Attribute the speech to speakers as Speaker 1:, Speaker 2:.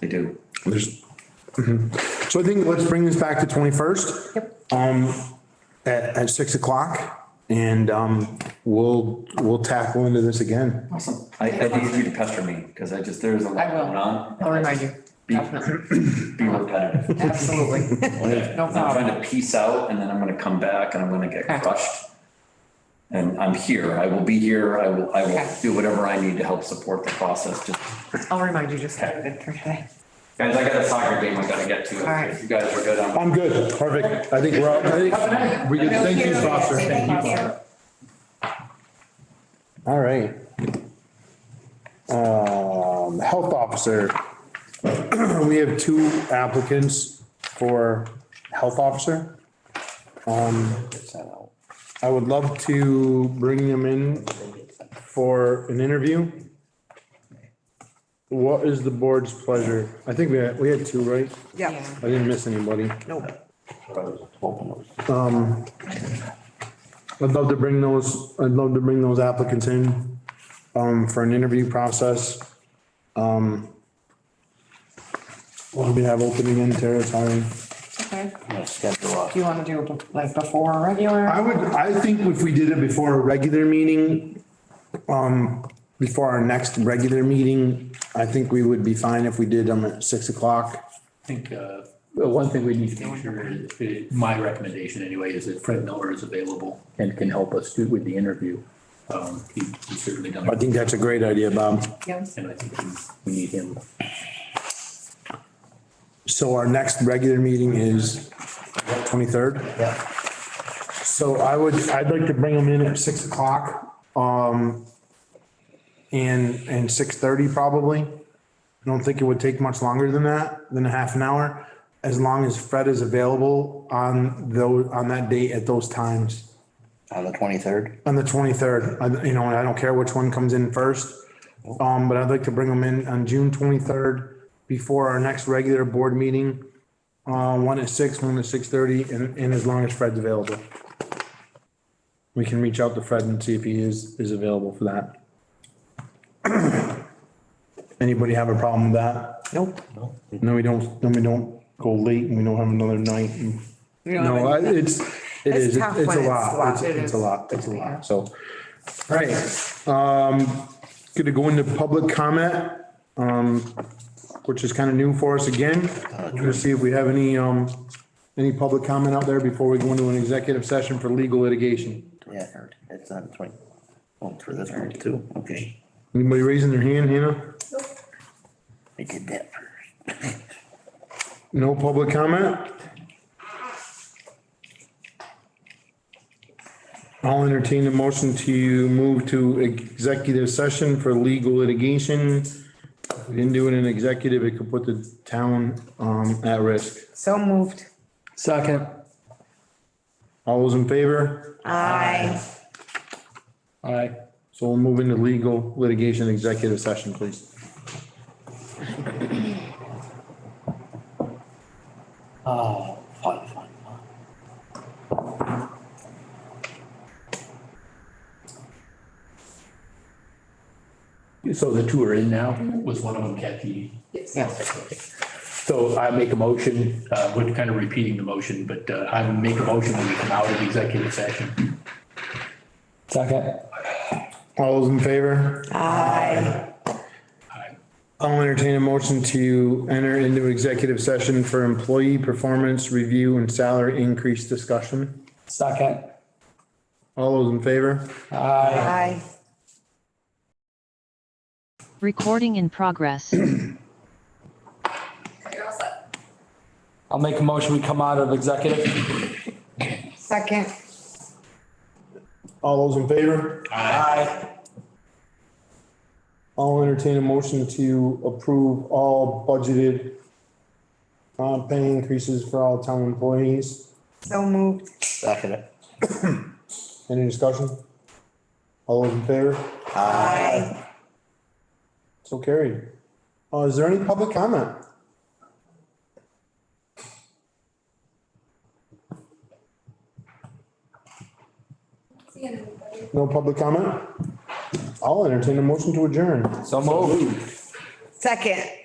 Speaker 1: They do.
Speaker 2: There's, mhm. so I think let's bring this back to twenty-first. Yep. Um, at, at six o'clock and, um, we'll, we'll tackle into this again.
Speaker 1: Awesome. I, I need you to pester me because I just, there's a lot
Speaker 3: I will.
Speaker 1: going on.
Speaker 3: I'll remind you.
Speaker 1: Be-
Speaker 3: Definitely.
Speaker 1: Be repetitive.
Speaker 3: Absolutely. No
Speaker 1: And I'm trying
Speaker 3: problem.
Speaker 1: to piece out and then I'm gonna come back and I'm gonna get
Speaker 3: Okay.
Speaker 1: crushed. And I'm here. I will be here. I will, I will
Speaker 3: Okay.
Speaker 1: do whatever I need to help support the process. Just,
Speaker 3: I'll remind you just have it for today.
Speaker 1: guys, I got a soccer game I gotta get to.
Speaker 3: All right.
Speaker 1: If you guys are good, I'm.
Speaker 2: I'm good. Perfect. I think we're, all- I think, we did, thank you, Foster.
Speaker 4: Thank you.
Speaker 2: All right. Um, health officer. We have two applicants for health officer. Um, I would love to bring them in for an interview. What is the board's pleasure? I think we had, we had two, right?
Speaker 3: Yeah.
Speaker 2: I didn't miss anybody.
Speaker 5: Nope.
Speaker 2: I'd love to bring those, I'd love to bring those applicants in, um, for an interview process. Um, what do we have opening in Tara, sorry?
Speaker 3: Okay.
Speaker 5: Schedule up.
Speaker 3: Do you want to do it like before or regular?
Speaker 2: I would, I think if we did it before a regular meeting, um, before our next regular meeting, I think we would be fine if we did them at six o'clock.
Speaker 6: I think, uh, well, one thing we need to make sure is, is- my recommendation anyway, is that Fred Miller is available and can help us do with the interview. Um, he- he's certainly done,
Speaker 2: I
Speaker 6: it,
Speaker 2: think that's a great idea, Bob.
Speaker 3: Yes.
Speaker 6: and I think he- we need him.
Speaker 2: So our next regular meeting is twenty-third? Yeah. So I would, I'd like to bring them in at six o'clock, um, and, and six-thirty probably. I don't think it would take much longer than that, than a half an hour, as long as Fred is available on those, on that date at those times.
Speaker 5: On the twenty-third?
Speaker 2: On the twenty-third, I, you know, and I don't care which one comes in first. Um, but I'd like to bring them in on June twenty-third before our next regular board meeting. Uh, one at six, one at six-thirty, and, and as long as Fred's available. We can reach out to Fred and see if he is, is available for that. Anybody have a problem with that?
Speaker 5: Nope.
Speaker 2: No, we don't, then we don't go late and we don't have another night and. No, I- it's, it
Speaker 3: It's
Speaker 2: is,
Speaker 3: tough
Speaker 2: it's a
Speaker 3: when it's
Speaker 2: lot, it's,
Speaker 3: locked. It
Speaker 2: it's a
Speaker 3: is.
Speaker 2: lot, it's a lot, so. All right, um, gonna go into public comment, um, which is kind of new for us again. We're gonna see if we have any, um, any public comment out there before we go into an executive session for legal litigation.
Speaker 5: Yeah, it's on the twenty, oh, for this one too, okay.
Speaker 2: Anybody raising their hand, Hannah?
Speaker 5: I did that first.
Speaker 2: No public comment? I'll entertain a motion to move to executive session for legal litigation. If we didn't do it in executive, it could put the town, um, at risk.
Speaker 3: So moved.
Speaker 6: Second.
Speaker 2: All those in favor?
Speaker 4: Aye.
Speaker 6: Aye.
Speaker 2: So we'll move into legal litigation executive session, please.
Speaker 5: Oh, fun, fun, fun.
Speaker 6: So the two are in now? Was one of them Kathy?
Speaker 3: Yes.
Speaker 6: So I make a motion, uh, we're kind of repeating the motion, but, uh, I make a motion when we come out of the executive session. Second.
Speaker 2: All those in favor?
Speaker 6: Aye.
Speaker 2: I'll entertain a motion to enter into executive session for employee performance review and salary increase discussion.
Speaker 6: Second.
Speaker 2: All those in favor?
Speaker 6: Aye.
Speaker 4: Aye.
Speaker 7: Recording in progress.
Speaker 8: I'll make a motion, we come out of executive.
Speaker 3: Second.
Speaker 2: All those in favor?
Speaker 8: Aye.
Speaker 2: I'll entertain a motion to approve all budgeted uh, pay increases for all town employees.
Speaker 3: So moved.
Speaker 5: Second it.
Speaker 2: Any discussion? All those in favor?
Speaker 4: Aye.
Speaker 2: So carried. Uh, is there any public comment? No public comment? I'll entertain a motion to adjourn.
Speaker 8: So moved.
Speaker 4: Second.